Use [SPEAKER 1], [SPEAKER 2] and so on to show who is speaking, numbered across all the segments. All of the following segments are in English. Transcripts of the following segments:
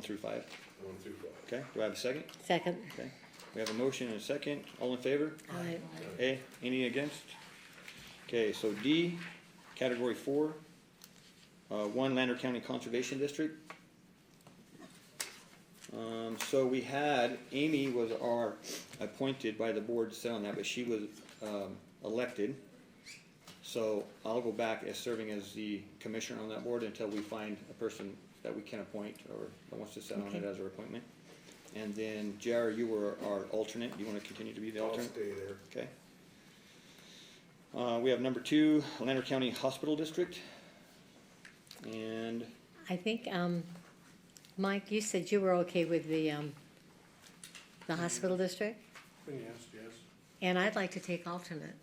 [SPEAKER 1] through five.
[SPEAKER 2] one through five.
[SPEAKER 1] Okay, do I have a second?
[SPEAKER 3] Second.
[SPEAKER 1] Okay, we have a motion and a second, all in favor?
[SPEAKER 3] Aye.
[SPEAKER 1] A, any against? Okay, so D, category four, uh, one Lander County Conservation District. Um, so we had, Amy was our, appointed by the board to sit on that, but she was, um, elected. So I'll go back as serving as the commissioner on that board until we find a person that we can appoint or that wants to sit on it
[SPEAKER 3] Okay.
[SPEAKER 1] as our appointment. And then Jar, you were our alternate, you wanna continue to be the
[SPEAKER 2] I'll
[SPEAKER 1] alternate?
[SPEAKER 2] stay there.
[SPEAKER 1] Okay. Uh, we have number two, Lander County Hospital District. And
[SPEAKER 3] I think, um, Mike, you said you were okay with the, um, the hospital district,
[SPEAKER 2] Yes, yes.
[SPEAKER 3] and I'd like to take alternate.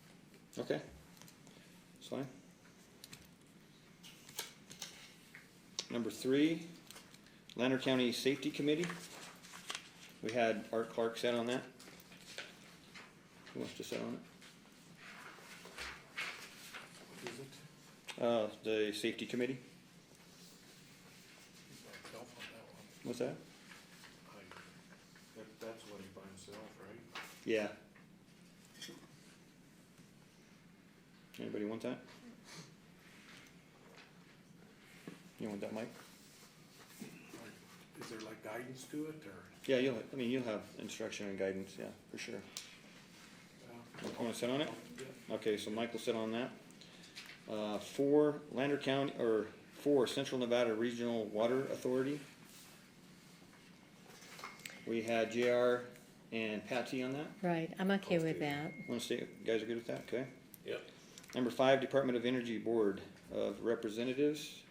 [SPEAKER 1] Okay. That's fine. Number three, Lander County Safety Committee. We had Art Clark sat on that. Who wants to sit on
[SPEAKER 2] Is it?
[SPEAKER 1] it? Uh, the Safety Committee,
[SPEAKER 2] Myself on that one.
[SPEAKER 1] what's that?
[SPEAKER 2] I- That, that's what he by himself, right?
[SPEAKER 1] Yeah. Anybody want that? You want that, Mike?
[SPEAKER 2] Like, Is there like guidance to it, or?
[SPEAKER 1] Yeah, you'll, I mean, you'll have instruction and guidance, yeah, for sure. You wanna sit on it? Okay, so Mike will sit on that. Uh, four, Lander County, or four, Central Nevada Regional Water Authority. We had JR and Patsy on that.
[SPEAKER 3] Right, I'm okay with that.
[SPEAKER 1] Wanna see, you guys are good with that, okay?
[SPEAKER 2] Yep.
[SPEAKER 1] Number five, Department of Energy Board of Representatives.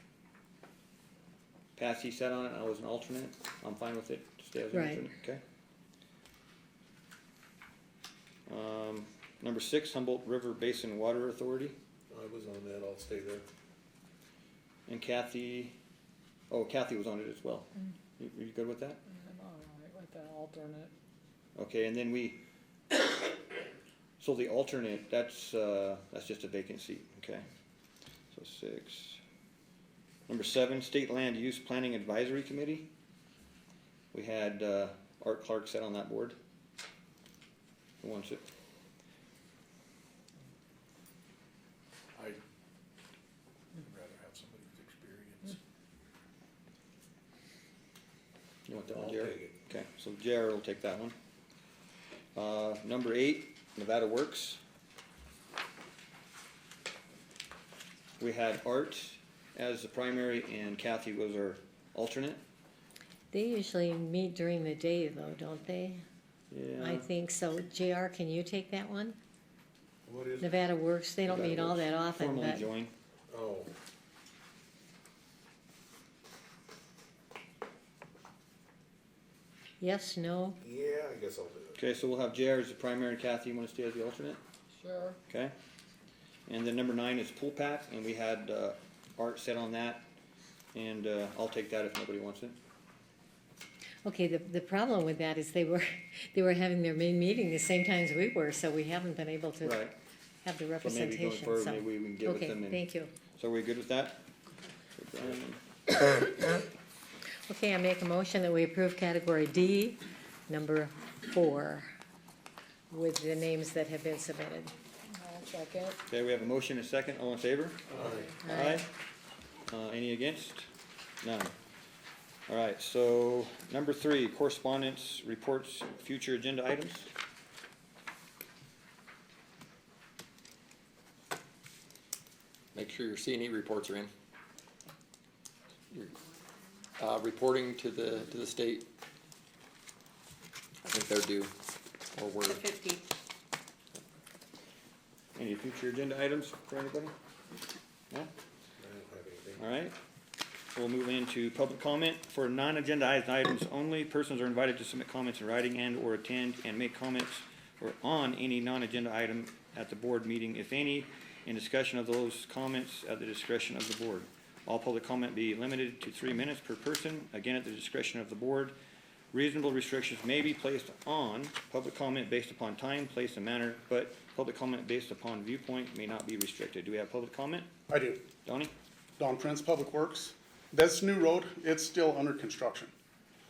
[SPEAKER 1] Patsy sat on it, I was an alternate, I'm fine with it, stay as an
[SPEAKER 3] Right.
[SPEAKER 1] alternate, okay? Um, number six, Humboldt River Basin Water Authority,
[SPEAKER 2] I was on that, I'll stay there.
[SPEAKER 1] and Kathy, oh, Kathy was on it as well. You, you good with that?
[SPEAKER 4] I'm all right with the alternate.
[SPEAKER 1] Okay, and then we, so the alternate, that's, uh, that's just a vacant seat, okay? So six. Number seven, State Land Use Planning Advisory Committee. We had, uh, Art Clark sat on that board. Who wants it?
[SPEAKER 2] I would rather have somebody with experience.
[SPEAKER 1] You want that one,
[SPEAKER 2] I'll
[SPEAKER 1] Jared?
[SPEAKER 2] take it.
[SPEAKER 1] Okay, so Jared will take that one. Uh, number eight, Nevada Works. We had Art as the primary and Kathy was our alternate.
[SPEAKER 3] They usually meet during the day though, don't they? I
[SPEAKER 1] Yeah,
[SPEAKER 3] think so. JR, can you take that one?
[SPEAKER 2] What is,
[SPEAKER 3] Nevada Works, they don't
[SPEAKER 1] Nevada
[SPEAKER 3] meet all
[SPEAKER 1] Works.
[SPEAKER 3] that often,
[SPEAKER 1] formally
[SPEAKER 3] but
[SPEAKER 1] join.
[SPEAKER 2] oh,
[SPEAKER 3] yes, no,
[SPEAKER 2] yeah, I guess I'll do it.
[SPEAKER 1] Okay, so we'll have Jared as the primary and Kathy, you wanna stay as the alternate,
[SPEAKER 4] Sure.
[SPEAKER 1] okay? And then number nine is Pool Pack and we had, uh, Art set on that. And, uh, I'll take that if nobody wants it.
[SPEAKER 3] Okay, the, the problem with that is they were, they were having their main meeting the same times we were, so we haven't been able to
[SPEAKER 1] Right,
[SPEAKER 3] have
[SPEAKER 1] so
[SPEAKER 3] the
[SPEAKER 1] maybe
[SPEAKER 3] representation,
[SPEAKER 1] going
[SPEAKER 3] so.
[SPEAKER 1] forward, maybe we can get with them
[SPEAKER 3] Okay,
[SPEAKER 1] and.
[SPEAKER 3] thank you.
[SPEAKER 1] So are we good with that? So Brian,
[SPEAKER 3] Okay, I make a motion that we approve category D, number four, with the names that have been submitted.
[SPEAKER 4] I'll check it.
[SPEAKER 1] Okay, we have a motion and a second, all in favor?
[SPEAKER 3] Aye.
[SPEAKER 1] Uh, any against? None. All right, so number three, correspondence, reports, future agenda items.
[SPEAKER 5] Make sure your C and E reports are in. Your, Uh, reporting to the, to the state. I think they're due, or we're,
[SPEAKER 6] fifty.
[SPEAKER 1] Any future agenda items for anybody? No?
[SPEAKER 2] I don't have anything.
[SPEAKER 1] All right. We'll move into public comment. For non-agenda items only, persons are invited to submit comments in writing and/or attend and make comments or on any non-agenda item at the board meeting, if any, in discussion of those comments at the discretion of the board. All public comment be limited to three minutes per person, again at the discretion of the board. Reasonable restrictions may be placed on public comment based upon time, place, and manner, but public comment based upon viewpoint may not be restricted. Do we have public comment?
[SPEAKER 7] I do.
[SPEAKER 1] Donnie?
[SPEAKER 7] Don Prince, Public Works. That's new road. It's still under construction.